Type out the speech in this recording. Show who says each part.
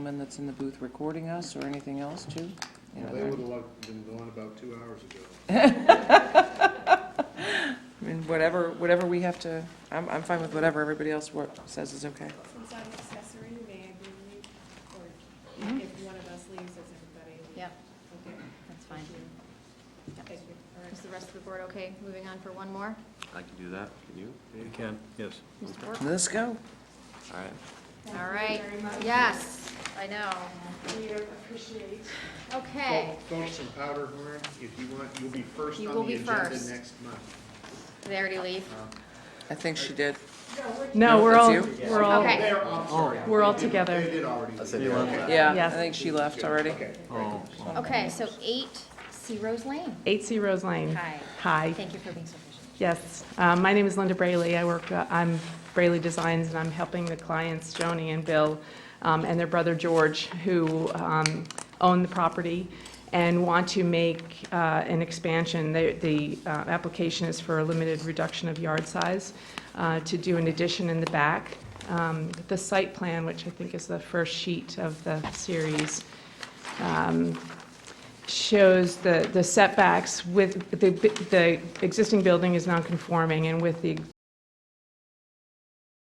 Speaker 1: gentleman that's in the booth recording us or anything else too? You know,
Speaker 2: They
Speaker 1: they're-
Speaker 2: would have loved- been gone about two hours ago.
Speaker 1: I mean, whatever, whatever we have to, I'm, I'm fine with whatever everybody else wor- says is okay.
Speaker 3: Since I'm accessory, may I bring you, or if one of us leaves, does everybody? leave?
Speaker 4: Yep,
Speaker 3: Okay,
Speaker 4: that's fine.
Speaker 3: thank you. Thank you. All right.
Speaker 4: Is the rest of the board okay? Moving on for one more?
Speaker 5: I can do that, can you?
Speaker 6: You can, yes.
Speaker 4: Mr. Bork?
Speaker 1: Let's go.
Speaker 5: All right.
Speaker 4: All
Speaker 3: Thank
Speaker 4: right,
Speaker 3: you very much.
Speaker 4: yes, I know.
Speaker 3: We appreciate.
Speaker 4: Okay,
Speaker 2: Fol- Folks from Powderhorn, if you want, you'll be first
Speaker 4: You
Speaker 2: on
Speaker 4: will
Speaker 2: the
Speaker 4: be
Speaker 2: agenda
Speaker 4: first.
Speaker 2: next month.
Speaker 4: did they already leave?
Speaker 1: I think she did.
Speaker 7: No, we're
Speaker 1: That's
Speaker 7: all,
Speaker 1: you?
Speaker 7: we're all,
Speaker 4: Okay.
Speaker 2: They're, I'm sorry.
Speaker 7: We're all
Speaker 2: They did-
Speaker 7: together.
Speaker 2: They did already. leave. Okay.
Speaker 1: Yeah, I
Speaker 7: Yes.
Speaker 1: think she left already.
Speaker 2: Okay.
Speaker 6: Oh,
Speaker 4: Okay, so eight, C Rose Lane.
Speaker 7: 8C Rose Lane.
Speaker 4: Hi.
Speaker 7: Hi.
Speaker 4: Thank you for being so patient.
Speaker 7: Yes, Um, my name is Linda Brayley. I work, uh, I'm Brayley Designs, and I'm helping the clients, Joni and Bill, um, and their brother George, who um, own the property and want to make uh, an expansion. They- The uh, application is for a limited reduction of yard size uh, to do an addition in the back. Um, The site plan, which I think is the first sheet of the series, um, shows the the setbacks with, the the existing building is non-conforming, and with the